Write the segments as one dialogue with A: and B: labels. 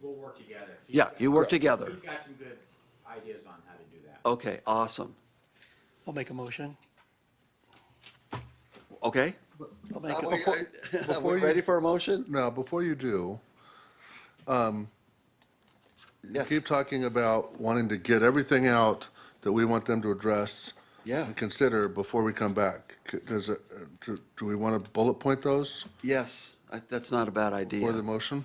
A: We'll work together. He's
B: Yeah,
A: got-
B: you work together.
A: He's got some good ideas on how to do that.
B: Okay, awesome.
C: I'll make a motion.
B: Okay?
C: I'll make
B: Are
C: a-
B: we-
D: Before-
B: Are we ready for a motion?
D: Now, before you do, um, you
B: Yes.
D: keep talking about wanting to get everything out that we want them to address.
B: Yeah.
D: And consider before we come back. C- Does, it- uh, do do we want to bullet point those
B: Yes, I- that's not a bad
D: for the
B: idea.
D: motion?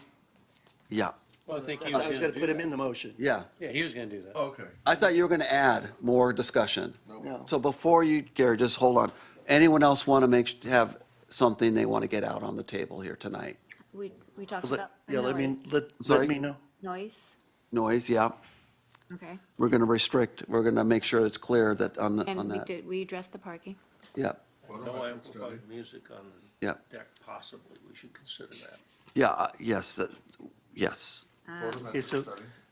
B: Yeah,
E: Well, I think he
C: I
E: was
C: was
E: gonna
C: gonna
E: do
C: put him
E: that.
C: in the motion.
B: yeah.
E: Yeah, he was gonna do that.
D: Okay.
B: I thought you were going to add more discussion.
C: No.
B: So before you, Gary, just hold on. Anyone else want to make, have something they want to get out on the table here tonight?
F: We, we talked
C: Let-
F: about
C: Yeah, let me,
F: noise.
C: let,
B: Sorry?
C: let me know.
F: Noise,
B: Noise, yeah.
F: okay.
B: We're going to restrict, we're going to make sure it's clear that on, on
F: And we
B: that.
F: did, we addressed the parking.
B: Yeah,
G: No amplified music on
B: yeah,
G: the deck possibly, we should consider that.
B: yeah, uh, yes, that- yes.
C: Okay, so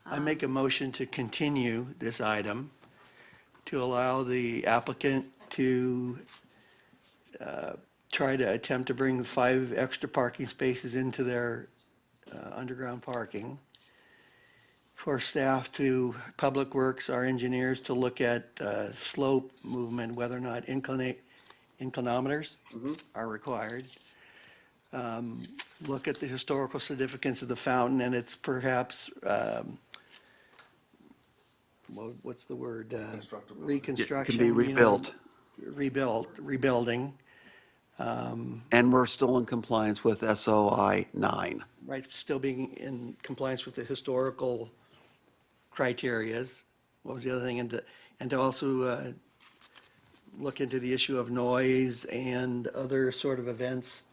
C: I make a motion to continue this item to allow the applicant to uh, try to attempt to bring the five extra parking spaces into their uh, underground parking. For staff to, Public Works, our engineers, to look at uh, slope movement, whether or not inclinate, inclinometers are required Um, look at the historical significance of the fountain and it's perhaps, um, what- what's the word? Uh,
D: Reconstructability.
C: Reconstruction.
B: It can be
C: you know,
B: rebuilt.
C: Rebuilt, rebuilding,
B: And we're still in compliance with SOI 9.
C: right, still being in compliance with the historical criterias. What was the other thing? And to, and to also uh, look into the issue of noise and other sort of events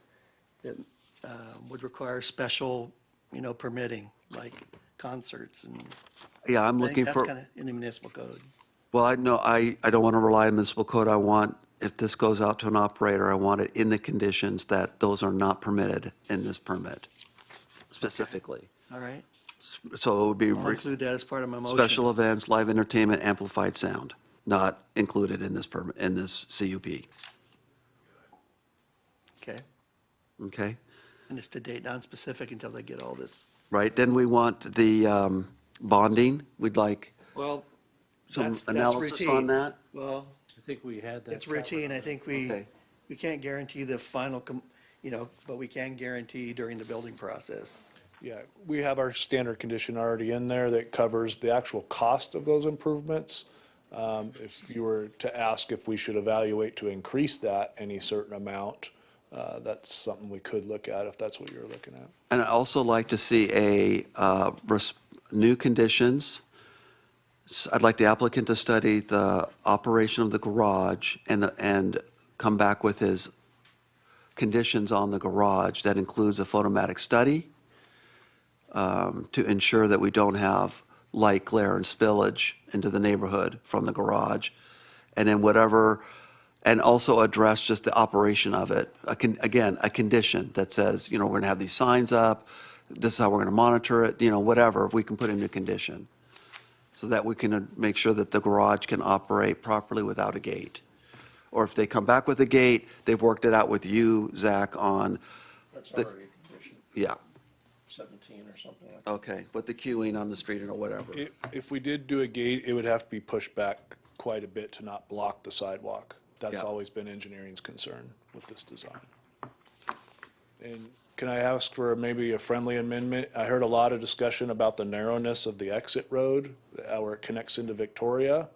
C: that uh, would require special, you know, permitting, like concerts and.
B: Yeah, I'm
C: I
B: looking
C: think
B: for.
C: that's kind of in the municipal code.
B: Well, I know, I, I don't want to rely on municipal code. I want, if this goes out to an operator, I want it in the conditions that those are not permitted in this permit specifically.
C: All right,
B: So it would be
C: I'll
B: re-
C: include that as part of my motion.
B: special events, live entertainment, amplified sound, not included in this permit, in this CUP.
C: Okay,
B: Okay?
C: and it's to date non-specific until they get all this.
B: Right? Then we want the um, bonding. We'd like
C: Well,
B: some analysis on that.
C: Well,
E: I think we had that.
C: it's routine, I think we,
B: Okay.
C: we can't guarantee the final, com- you know, but we can guarantee during the building process.
H: Yeah, we have our standard condition already in there that covers the actual cost of those improvements. Um, If you were to ask if we should evaluate to increase that any certain amount, uh, that's something we could look at if that's what you're looking at.
B: And I'd also like to see a, uh, res- new conditions. S- I'd like the applicant to study the operation of the garage and, and come back with his conditions on the garage. That includes a photomatic study um, to ensure that we don't have light glare and spillage into the neighborhood from the garage. And then whatever, and also address just the operation of it. A con- Again, a condition that says, you know, we're going to have these signs up, this is how we're going to monitor it, you know, whatever, we can put in a condition. So that we can uh, make sure that the garage can operate properly without a gate. Or if they come back with a gate, they've worked it out with you, Zach, on,
G: That's
B: The-
G: already a condition,
B: yeah,
G: seventeen or something like that.
B: okay, with the queuing on the street and whatever.
H: I- If we did do a gate, it would have to be pushed back quite a bit to not block the sidewalk. That's
B: Yeah.
H: always been engineering's concern with this design. And can I ask for maybe a friendly amendment? I heard a lot of discussion about the narrowness of the exit road, uh, where it connects into Victoria.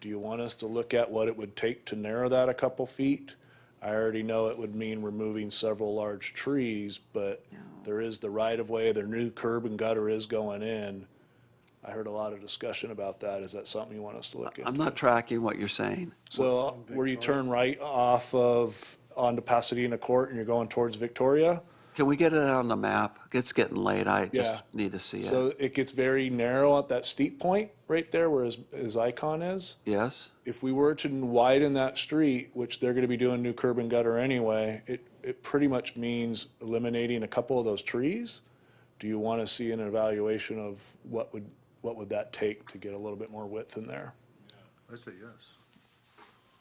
H: Do you want us to look at what it would take to narrow that a couple feet? I already know it would mean removing several large trees, but there is the right of way, their new curb and gutter is going in. I heard a lot of discussion about that. Is that something you want us to look at?
B: I'm not tracking what you're saying.
H: So uh, where you turn right off of, onto Pasadena Court and you're going towards Victoria?
B: Can we get it on the map? It's getting late, I
H: Yeah.
B: just need to see it.
H: So it gets very narrow at that steep point right there where his, his icon is.
B: Yes?
H: If we were to widen that street, which they're gonna be doing new curb and gutter anyway, it, it pretty much means eliminating a couple of those trees. Do you wanna see an evaluation of what would, what would that take to get a little bit more width in there?
D: I say yes.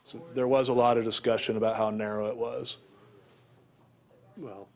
H: So there was a lot of discussion about how narrow it was.
E: Well,